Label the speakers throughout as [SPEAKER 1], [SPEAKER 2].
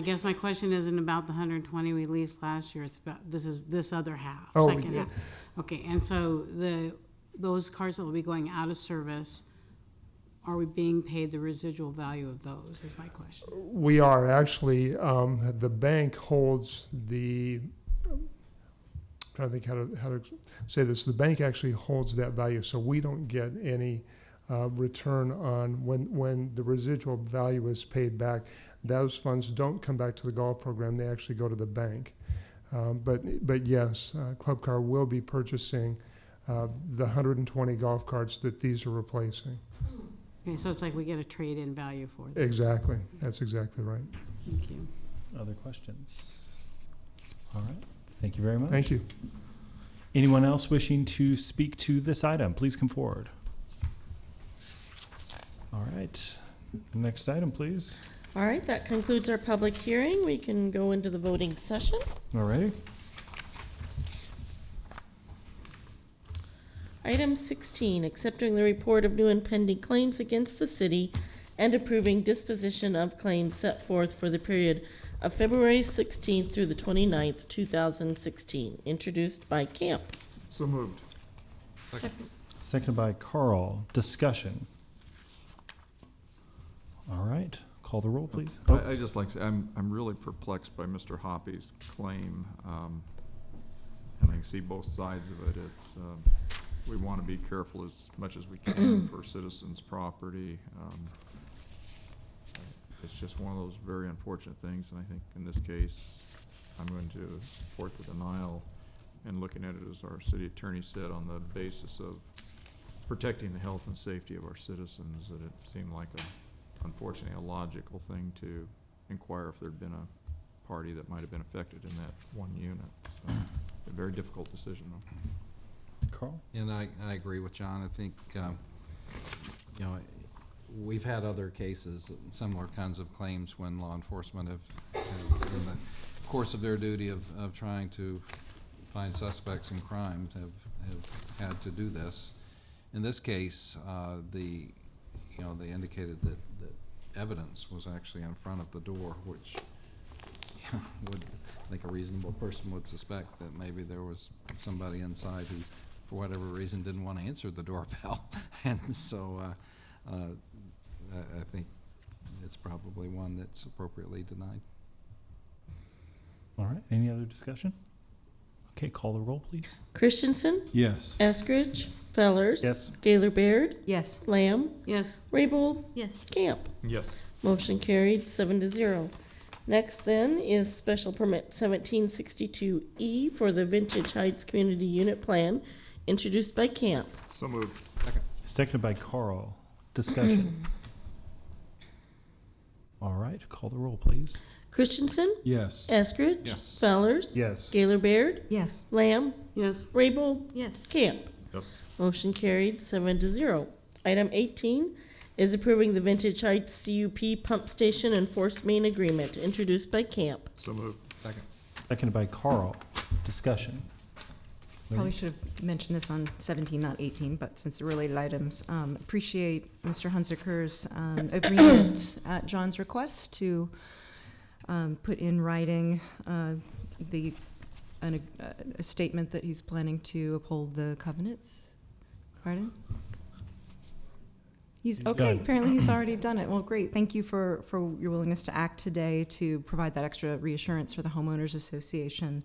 [SPEAKER 1] guess my question isn't about the hundred and twenty we leased last year, it's about, this is this other half,
[SPEAKER 2] Oh,
[SPEAKER 1] second
[SPEAKER 2] yeah.
[SPEAKER 1] half. Okay, and so the, those cars that will be going out of service, are we being paid the residual value of those, is my question?
[SPEAKER 2] We are actually, um, the bank holds the, I'm trying to think how to, how to say this, the bank actually holds that value, so we don't get any uh, return on when, when the residual value is paid back. Those funds don't come back to the golf program, they actually go to the bank. Um, But, but yes, uh, Club Car will be purchasing uh, the 120 golf carts that these are replacing.
[SPEAKER 1] Okay, so it's like we get a trade-in value for them,
[SPEAKER 2] Exactly, that's exactly right.
[SPEAKER 1] thank you.
[SPEAKER 3] Other questions? All right. Thank you very much.
[SPEAKER 2] Thank you.
[SPEAKER 3] Anyone else wishing to speak to this item, please come forward. All right. Next item, please.
[SPEAKER 4] All right, that concludes our public hearing. We can go into the voting session.
[SPEAKER 3] All righty.
[SPEAKER 4] Item 16, accepting the report of new and pending claims against the city and approving disposition of claims set forth for the period of February 16th through the 29th, 2016, introduced by Camp.
[SPEAKER 5] So moved.
[SPEAKER 3] Seconded by Carl. Discussion. All right. Call the roll, please. Oh,
[SPEAKER 5] I, I just like, to say, I'm, I'm really perplexed by Mr. Hoppy's claim. um, And I can see both sides of it. It's, um, we want to be careful as much as we can for citizens' property. Um, It's just one of those very unfortunate things, and I think in this case, I'm going to support the denial. And looking at it, as our city attorney said, on the basis of protecting the health and safety of our citizens, that it seemed like a unfortunately, a logical thing to inquire if there'd been a party that might have been affected in that one unit. So, a very difficult decision, though.
[SPEAKER 3] Carl.
[SPEAKER 6] And I, I agree with John. I think, um, you know, we've had other cases, similar kinds of claims when law enforcement have, have, in the course of their duty of, of trying to find suspects in crimes, have, have had to do this. In this case, uh, the, you know, they indicated that, that evidence was actually in front of the door, which yeah, would, I think a reasonable person would suspect that maybe there was somebody inside who, for whatever reason, didn't want to answer the doorbell. And so, uh, uh, I, I think it's probably one that's appropriately denied.
[SPEAKER 3] All right. Any other discussion? Okay. Call the roll, please.
[SPEAKER 4] Christensen,
[SPEAKER 3] Yes.
[SPEAKER 4] Eskridge, Fellers.
[SPEAKER 3] Yes.
[SPEAKER 4] Gaylor Baird,
[SPEAKER 7] Yes.
[SPEAKER 4] Lamb,
[SPEAKER 1] Yes,
[SPEAKER 4] Raybold,
[SPEAKER 7] Yes.
[SPEAKER 4] Camp.
[SPEAKER 5] Yes.
[SPEAKER 4] Motion carried, seven to zero. Next then is special permit seventeen sixty-two E for the Vintage Heights Community Unit Plan, introduced by Camp.
[SPEAKER 5] So moved.
[SPEAKER 3] Seconded by Carl. Discussion. All right. Call the roll, please.
[SPEAKER 4] Christensen?
[SPEAKER 3] Yes.
[SPEAKER 4] Eskridge?
[SPEAKER 5] Yes.
[SPEAKER 4] Fellers?
[SPEAKER 3] Yes.
[SPEAKER 4] Gaylor Baird?
[SPEAKER 7] Yes.
[SPEAKER 4] Lamb?
[SPEAKER 1] yes,
[SPEAKER 4] Raybold?
[SPEAKER 7] Yes.
[SPEAKER 4] Camp.
[SPEAKER 5] Yes.
[SPEAKER 4] Motion carried, seven to zero. Item eighteen is approving the Vintage Heights CUP Pump Station and Force Main Agreement, introduced by Camp.
[SPEAKER 5] So moved.
[SPEAKER 6] Second.
[SPEAKER 3] Seconded by Carl. Discussion.
[SPEAKER 7] Probably
[SPEAKER 3] Larry?
[SPEAKER 7] should have mentioned this on 17, not 18, but since they're related items, um, appreciate Mr. Hunziker's um, agreement at John's request to um, put in writing uh, the, an, uh, a statement that he's planning to uphold the covenants. Pardon? He's,
[SPEAKER 3] He's
[SPEAKER 7] okay,
[SPEAKER 3] done.
[SPEAKER 7] apparently he's already done it. Well, great. Thank you for, for your willingness to act today to provide that extra reassurance for the homeowners association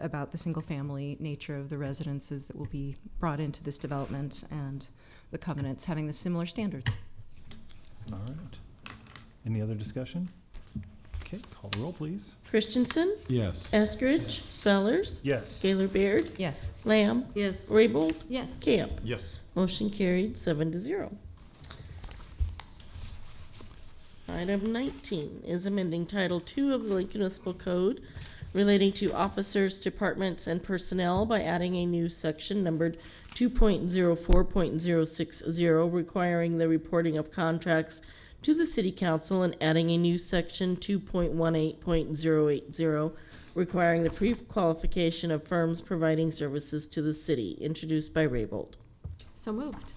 [SPEAKER 7] about the single-family nature of the residences that will be brought into this development and the covenants having the similar standards.
[SPEAKER 3] All right. Any other discussion? Okay, call the roll, please.
[SPEAKER 4] Christensen?
[SPEAKER 3] Yes.
[SPEAKER 4] Eskridge? Fellers?
[SPEAKER 3] Yes.
[SPEAKER 4] Gaylor Baird?
[SPEAKER 7] Yes.
[SPEAKER 4] Lamb?
[SPEAKER 1] yes.
[SPEAKER 4] Raybold?
[SPEAKER 7] Yes.
[SPEAKER 4] Camp.
[SPEAKER 5] Yes.
[SPEAKER 4] Motion carried, seven to zero. Item nineteen is amending Title Two of the Lincoln Municipal Code relating to officers, departments, and personnel by adding a new section numbered two point zero four point zero six zero requiring the reporting of contracts to the city council and adding a new section two point one eight point zero eight zero requiring the pre-qualification of firms providing services to the city, introduced by Raybold.
[SPEAKER 7] So moved.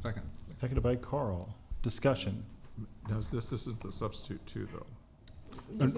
[SPEAKER 6] Second.
[SPEAKER 3] Seconded by Carl. Discussion.
[SPEAKER 5] Does this, this isn't the substitute two, though?